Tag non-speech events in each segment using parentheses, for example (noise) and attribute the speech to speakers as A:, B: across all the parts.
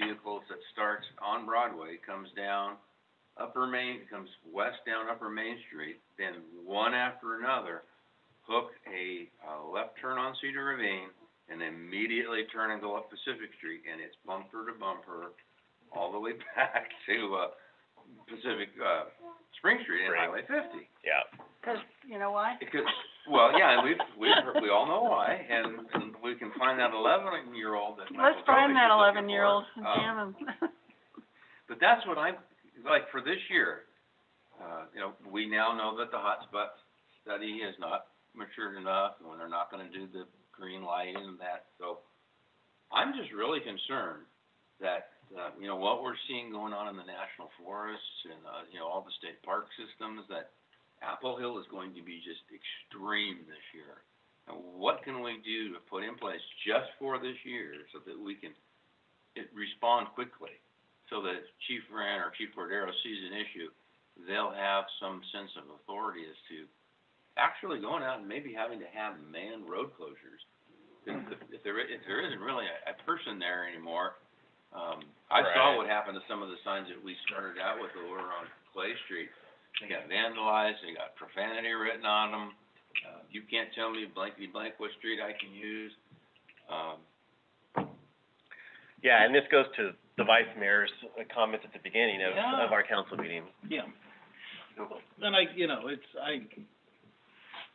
A: vehicles that starts on Broadway, comes down Upper Main, comes west down Upper Main Street, then one after another, hook a, uh left turn on Cedar Ravine, and immediately turn and go up Pacific Street, and it's bumper to bumper, all the way (laughs) back to, uh, Pacific, uh, Spring Street and
B: Spring.
A: Highway fifty.
B: Yeah.
C: Cause, you know why?
A: Because, well, yeah, and we've, we've, heard- we all know why, and, and we can find that eleven-year-old that
C: Let's
A: Michael Kovic
C: find
A: is
C: that
A: looking for.
C: eleven-year-old and
B: Oh.
A: Um,
C: jam him. (laughs)
A: But that's what I'm, like, for this year, uh, you know, we now know that the hotspot study is not matured enough, and they're not gonna do the green light and that, so I'm just really concerned that, uh, you know, what we're seeing going on in the national forests and, uh, you know, all the state park systems, that Apple Hill is going to be just extreme this year. And what can we do to put in place just for this year so that we can, it, respond quickly? so that if Chief Moran or Chief Cordero sees an issue, they'll have some sense of authority as to actually going out and maybe having to have manned road closures. If, if- if there, i- if there isn't really a, a person there anymore, um, I saw
B: Right.
A: what happened to some of the signs that we started out with over on Clay Street. They got vandalized, they got profanity written on them, uh, you can't tell me blankety blank what street I can use. Um,
B: Yeah, and this goes to the vice mayor's uh, comments at the beginning of,
D: Yeah.
B: of our council meeting.
D: Yeah. And I, you know, it's, I,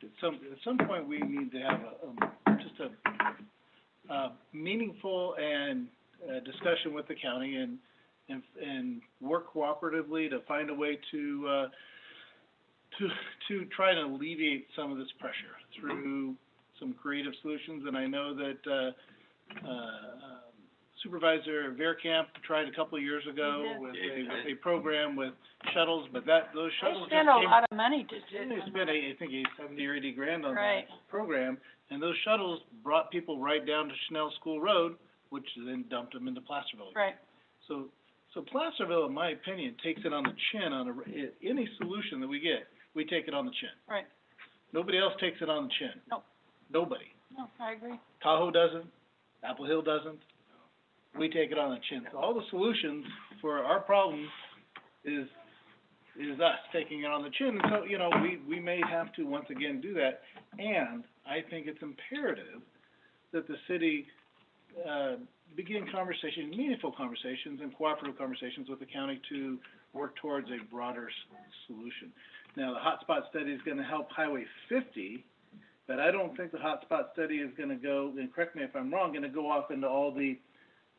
D: at some, at some point, we need to have a, um, just a, uh, meaningful and, uh, discussion with the county and, and, and work cooperatively to find a way to, uh, to, to try to alleviate some of this pressure through some creative solutions, and I know that, uh, uh, Supervisor Verkamp tried a couple of years ago
C: Yeah.
D: with
A: Mm-hmm. Yeah,
D: a,
A: he
D: with
A: did.
D: a program with shuttles, but that, those
C: They
D: shuttles just came.
C: spend a lot of money to do
D: They spent, I I think, eight, seventy or eighty grand on that
C: Right.
D: program, and those shuttles brought people right down to Chanel School Road, which then dumped them into Placerville.
C: Right,
D: So, so Placerville, in my opinion, takes it on the chin on a, r- i- any solution that we get, we take it on the chin.
C: Right.
D: Nobody else takes it on the chin.
C: Nope.
D: Nobody.
C: no, I agree.
D: Tahoe doesn't, Apple Hill doesn't, we take it on the chin. So all the solutions for our problem is, is us taking it on the chin. And so, you know, we, we may have to once again do that. And I think it's imperative that the city, uh, begin conversations, meaningful conversations and cooperative conversations with the county to work towards a broader s- solution. Now, the hotspot study is gonna help Highway fifty, but I don't think the hotspot study is gonna go, and correct me if I'm wrong, gonna go off into all the,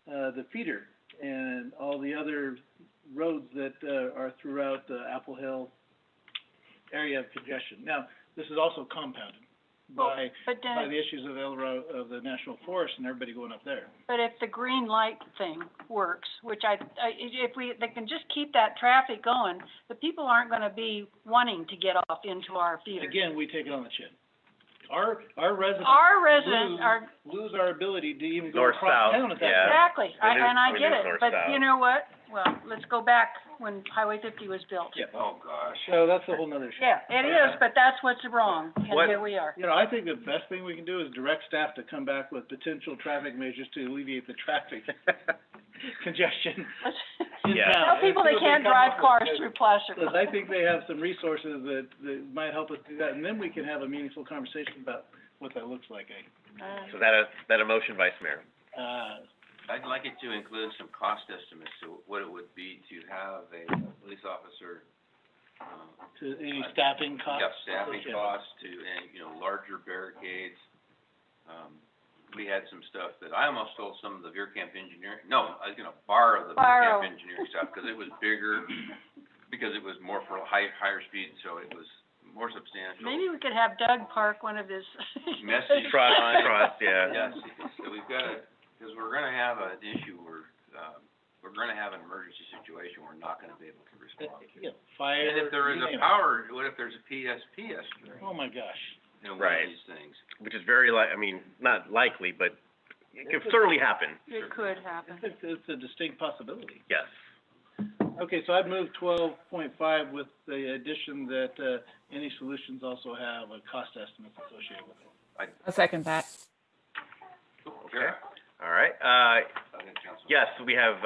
D: uh, the feeder and all the other roads that, uh, are throughout the Apple Hill area of congestion. Now, this is also compounded
C: Well,
D: by,
C: But
D: by
C: then,
D: the issues of El Ro- of the national forest and everybody going up there.
C: but if the green light thing works, which I, I, if we, they can just keep that traffic going, the people aren't gonna be wanting to get off into our theater.
D: Again, we take it on the chin. Our, our residents
C: Our residents are
D: lose our ability to even go
B: North,
D: across
B: south,
D: town at that
B: yeah.
C: Exactly,
D: point.
C: I,
B: Renew-
C: and I get
B: renew
C: it,
B: north
C: but
B: south.
C: you know what? Well, let's go back when Highway fifty was built.
A: oh, gosh.
D: So that's a whole nother issue.
C: Yeah, it is, but that's what's wrong, and
B: What-
C: here we are. (laughs)
D: You know, I think the best thing we can do is direct staff to come back with potential traffic measures to alleviate the
B: (laughs)
D: traffic congestion
C: Let's-
D: in
B: Yeah.
D: town.
C: Tell people they
D: Let's see what
C: can't
D: come
C: drive
D: up
C: cars
D: with,
C: through
D: 'cause
C: Placerville.
D: I think they have some resources that, that might help us do that, and then we can have a meaningful conversation about what that looks like, eh?
C: Uh,
B: So that a, that a motion, vice mayor?
D: Uh,
A: I'd like it to include some cost estimates to what it would be to have a police officer, um,
D: to any staffing costs?
A: yeah, staffing
D: associated.
A: costs to, and, you know, larger barricades. Um, we had some stuff that, I almost stole some of the Veer Camp engineering, no, I was gonna borrow the Veer
C: Borrow.
A: Camp engineering stuff, cause it was bigger, because it was more for high, higher speed, so it was more substantial.
C: Maybe we could have Doug park one of his.
A: Messy
B: Trust,
A: Fine.
B: trust, yeah.
A: Yes, so we've gotta, cause we're gonna have an issue where, um, we're gonna have an emergency situation we're not gonna be able to respond to.
D: Yeah, fire.
A: And if there is
D: you name
A: a
D: it.
A: power, what if there's a PSPS string,
D: Oh, my gosh.
A: you know, one
B: Right.
A: of these things?
B: Which is very li- I mean, not likely, but it could certainly happen,
C: It could happen.
D: It's, it's a distinct possibility.
B: yes.
D: Okay, so I've moved twelve point five with the addition that, uh, any solutions also have a cost estimate associated with it.
E: I'll second that.
A: Sure.
B: All right, uh,
A: I think Councilman-
B: yes, we have,